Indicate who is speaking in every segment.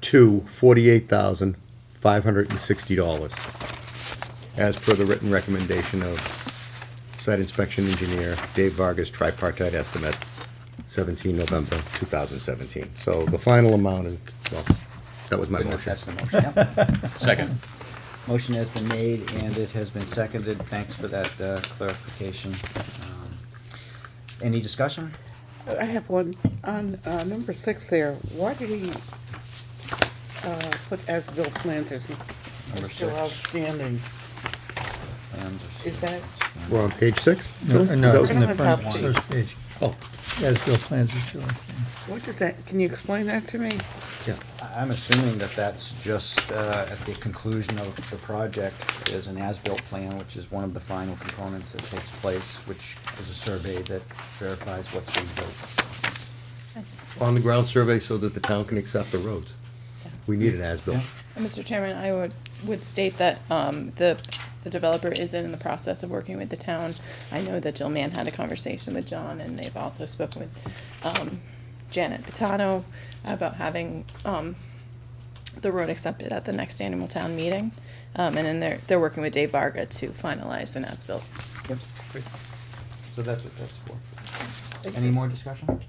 Speaker 1: to forty-eight thousand, five hundred and sixty dollars, as per the written recommendation of site inspection engineer Dave Vargas tripartite estimate, seventeen November two thousand seventeen. So the final amount is, well, that was my motion.
Speaker 2: That's the motion, yeah.
Speaker 3: Second.
Speaker 2: Motion has been made and it has been seconded. Thanks for that uh, clarification. Um, Any discussion?
Speaker 4: I have one, on, uh, number six there, why did he, uh, put as-built plans as
Speaker 2: Number
Speaker 4: still
Speaker 2: six.
Speaker 4: outstanding?
Speaker 2: Plans are-
Speaker 4: Is that,
Speaker 1: We're on page six?
Speaker 5: No,
Speaker 1: Phil? Is
Speaker 5: no,
Speaker 1: that-
Speaker 5: it's in the
Speaker 4: Right
Speaker 5: front,
Speaker 4: on top sheet.
Speaker 5: first page.
Speaker 1: Oh,
Speaker 5: As-built plans are shown.
Speaker 4: what does that, can you explain that to me?
Speaker 1: yeah.
Speaker 2: I- I'm assuming that that's just uh, at the conclusion of the project, there's an as-built plan, which is one of the final components that takes place, which is a survey that verifies what's being built.
Speaker 1: On-the-ground survey so that the town can accept the roads. We need an as-built.
Speaker 2: Yeah.
Speaker 6: Mr. Chairman, I would, would state that, um, the, the developer is in the process of working with the town. I know that Jill Mann had a conversation with John, and they've also spoken with, um, Janet Pitano about having, um, the road accepted at the next annual town meeting. Um, and then they're, they're working with Dave Varga to finalize an as-built.
Speaker 2: Yep. So that's what that's for. Any more discussion?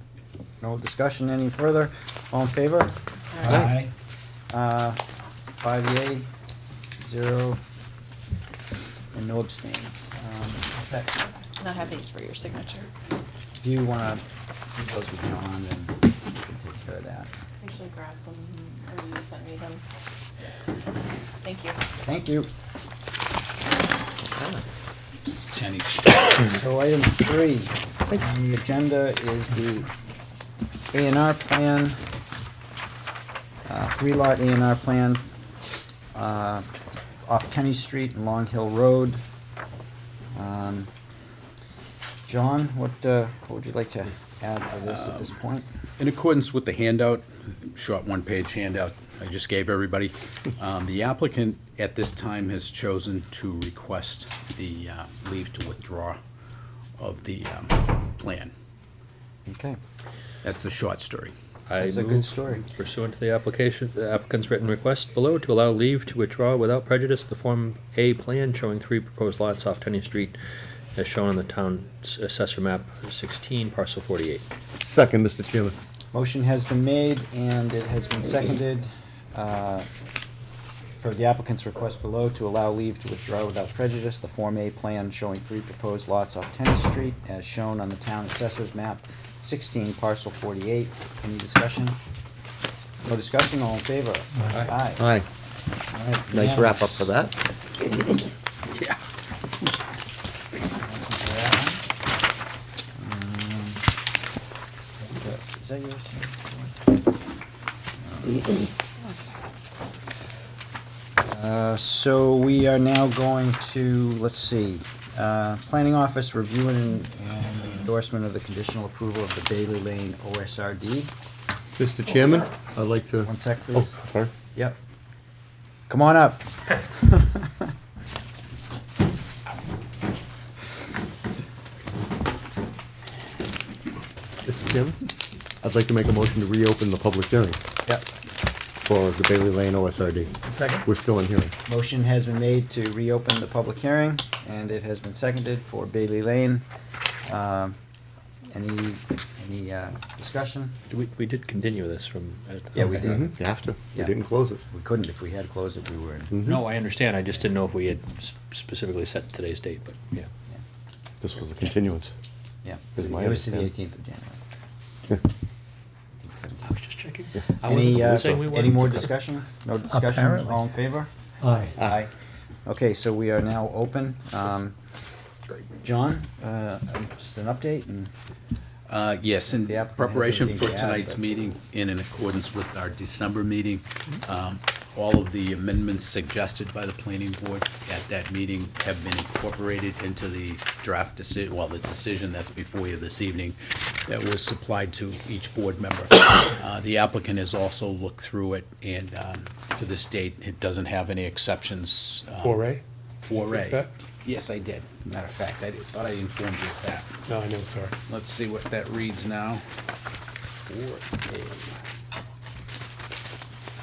Speaker 2: No discussion any further? All in favor? Aye. Uh, Five yea, zero, and no abstains. Um, is that-
Speaker 6: And I have these for your signature.
Speaker 2: If you wanna, keep those with John, then we can take care of that.
Speaker 6: Actually grab them, or you sent me them. Thank you.
Speaker 2: Thank you.
Speaker 3: Tenny.
Speaker 2: So item three on the agenda is the A and R plan, uh, three lot A and R plan, uh, off Kenny Street and Long Hill Road. Um, John, what, uh, what would you like to add to this at this point?
Speaker 3: In accordance with the handout, short one-page handout I just gave everybody, um, the applicant at this time has chosen to request the uh, leave to withdraw of the um, plan.
Speaker 2: Okay,
Speaker 3: That's the short story.
Speaker 7: I
Speaker 2: that's a good
Speaker 7: move
Speaker 2: story.
Speaker 7: pursuant to the application, the applicant's written request below to allow leave to withdraw without prejudice the Form A plan showing three proposed lots off Tenny Street as shown on the town assessor map sixteen, parcel forty-eight.
Speaker 1: Second, Mr. Chairman.
Speaker 2: Motion has been made and it has been seconded, uh, per the applicant's request below, to allow leave to withdraw without prejudice the Form A plan showing three proposed lots off Tennis Street as shown on the town assessor's map, sixteen parcel forty-eight. Any discussion? No discussion, all in favor? Aye.
Speaker 1: Aye.
Speaker 2: All right,
Speaker 1: Nice wrap up for
Speaker 2: unanimous.
Speaker 1: that.
Speaker 3: Yeah.
Speaker 2: Is that yours? Uh, So we are now going to, let's see, uh, Planning Office review and and endorsement of the conditional approval of the Bailey Lane OSRD.
Speaker 1: Mr. Chairman, I'd like to.
Speaker 2: One sec,
Speaker 1: Oh,
Speaker 2: please.
Speaker 1: sorry.
Speaker 2: Yep. Come on up.
Speaker 1: Mr. Chairman, I'd like to make a motion to reopen the public hearing
Speaker 2: Yep.
Speaker 1: for the Bailey Lane OSRD.
Speaker 5: Second?
Speaker 1: We're still in hearing.
Speaker 2: Motion has been made to reopen the public hearing, and it has been seconded for Bailey Lane. Um, Any, any uh, discussion?
Speaker 7: We, we did continue this from. at-
Speaker 2: Yeah, we
Speaker 7: okay.
Speaker 2: did.
Speaker 1: You have to. We
Speaker 2: Yeah.
Speaker 1: didn't close it. Mm-hmm.
Speaker 2: We couldn't, if we had closed it, we were in.
Speaker 7: No, I understand, I just didn't know if we had s- specifically set today's date, but, yeah.
Speaker 1: This was a continuance.
Speaker 2: Yeah,
Speaker 1: Is my
Speaker 2: it was to the
Speaker 1: understanding.
Speaker 2: eighteenth of January.
Speaker 7: I was just checking.
Speaker 2: Any, uh,
Speaker 7: saying we
Speaker 2: any
Speaker 7: weren't.
Speaker 2: more discussion? No discussion,
Speaker 5: Apparently.
Speaker 2: all in favor?
Speaker 5: Aye.
Speaker 2: Aye. Okay, so we are now open. Um, John, uh, just an update and,
Speaker 3: Uh, Yes, in
Speaker 2: The applicant has
Speaker 3: preparation
Speaker 2: everything
Speaker 3: for
Speaker 2: to add,
Speaker 3: tonight's
Speaker 2: but-
Speaker 3: meeting and in accordance with our December meeting, um, all of the amendments suggested by the planning board at that meeting have been incorporated into the draft decision, well, the decision that's before you this evening that was supplied to each board member. Uh, The applicant has also looked through it and um, to this date, it doesn't have any exceptions. um,
Speaker 8: Four A?
Speaker 3: for
Speaker 8: Fix
Speaker 3: A.
Speaker 8: that?
Speaker 3: Yes, I did. Matter of fact, I did- thought I informed you of that.
Speaker 8: No, I know, sorry.
Speaker 3: Let's see what that reads now. Four A.